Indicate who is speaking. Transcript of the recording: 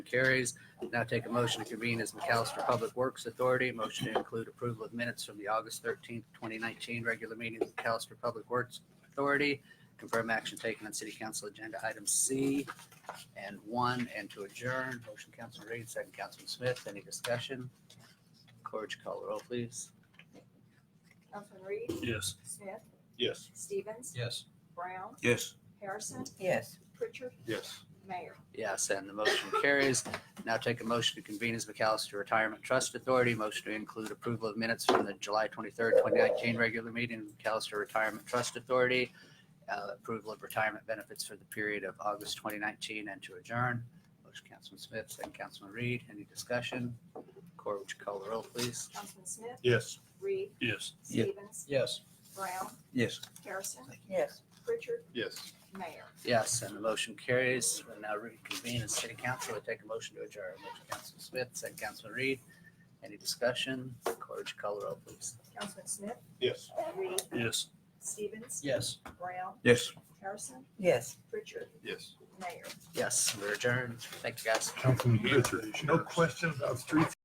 Speaker 1: Carries. Now take a motion to convene as McAllister Public Works Authority. Motion to include approval of minutes from the August thirteenth, twenty nineteen regular meeting of McAllister Public Works Authority. Confirm action taken on City Council Agenda Item C and one, and to adjourn. Motion, Councilman Reed, second, Councilman Smith. Any discussion? Corge, call the roll, please.
Speaker 2: Councilman Reed,
Speaker 3: Yes.
Speaker 2: Smith,
Speaker 3: Yes.
Speaker 2: Stevens,
Speaker 3: Yes.
Speaker 2: Brown,
Speaker 3: Yes.
Speaker 2: Harrison,
Speaker 4: Yes.
Speaker 2: Pritchard,
Speaker 3: Yes.
Speaker 2: Mayor.
Speaker 1: Yes, and the motion carries. Now take a motion to convene as McAllister Retirement Trust Authority. Motion to include approval of minutes from the July 23rd, 2019 regular meeting of McAllister Retirement Trust Authority. uh, Approval of retirement benefits for the period of August 2019 and to adjourn. Motion, Councilman Smith, second Councilman Reed. Any discussion? Cora, would you call the roll, please?
Speaker 2: Councilman Smith,
Speaker 3: Yes.
Speaker 2: Reed,
Speaker 3: Yes.
Speaker 4: Yeah.
Speaker 2: Stevens,
Speaker 3: Yes.
Speaker 2: Brown,
Speaker 3: Yes.
Speaker 2: Harrison,
Speaker 4: Yes.
Speaker 2: Pritchard,
Speaker 3: Yes.
Speaker 2: Mayor.
Speaker 1: Yes, and the motion carries. We'll now reconvene as city council. I take a motion to adjourn. Motion, Councilman Smith, second Councilman Reed. Any discussion? Corge, call the roll, please.
Speaker 2: Councilman Smith,
Speaker 3: Yes.
Speaker 2: Reed,
Speaker 3: Yes.
Speaker 2: Stevens,
Speaker 3: Yes.
Speaker 2: Brown,
Speaker 3: Yes.
Speaker 2: Harrison,
Speaker 4: Yes.
Speaker 2: Pritchard,
Speaker 3: Yes.
Speaker 2: Mayor.
Speaker 1: Yes, we're adjourned. Thank you, guys.
Speaker 3: Councilman Pritchard.
Speaker 5: No questions of streets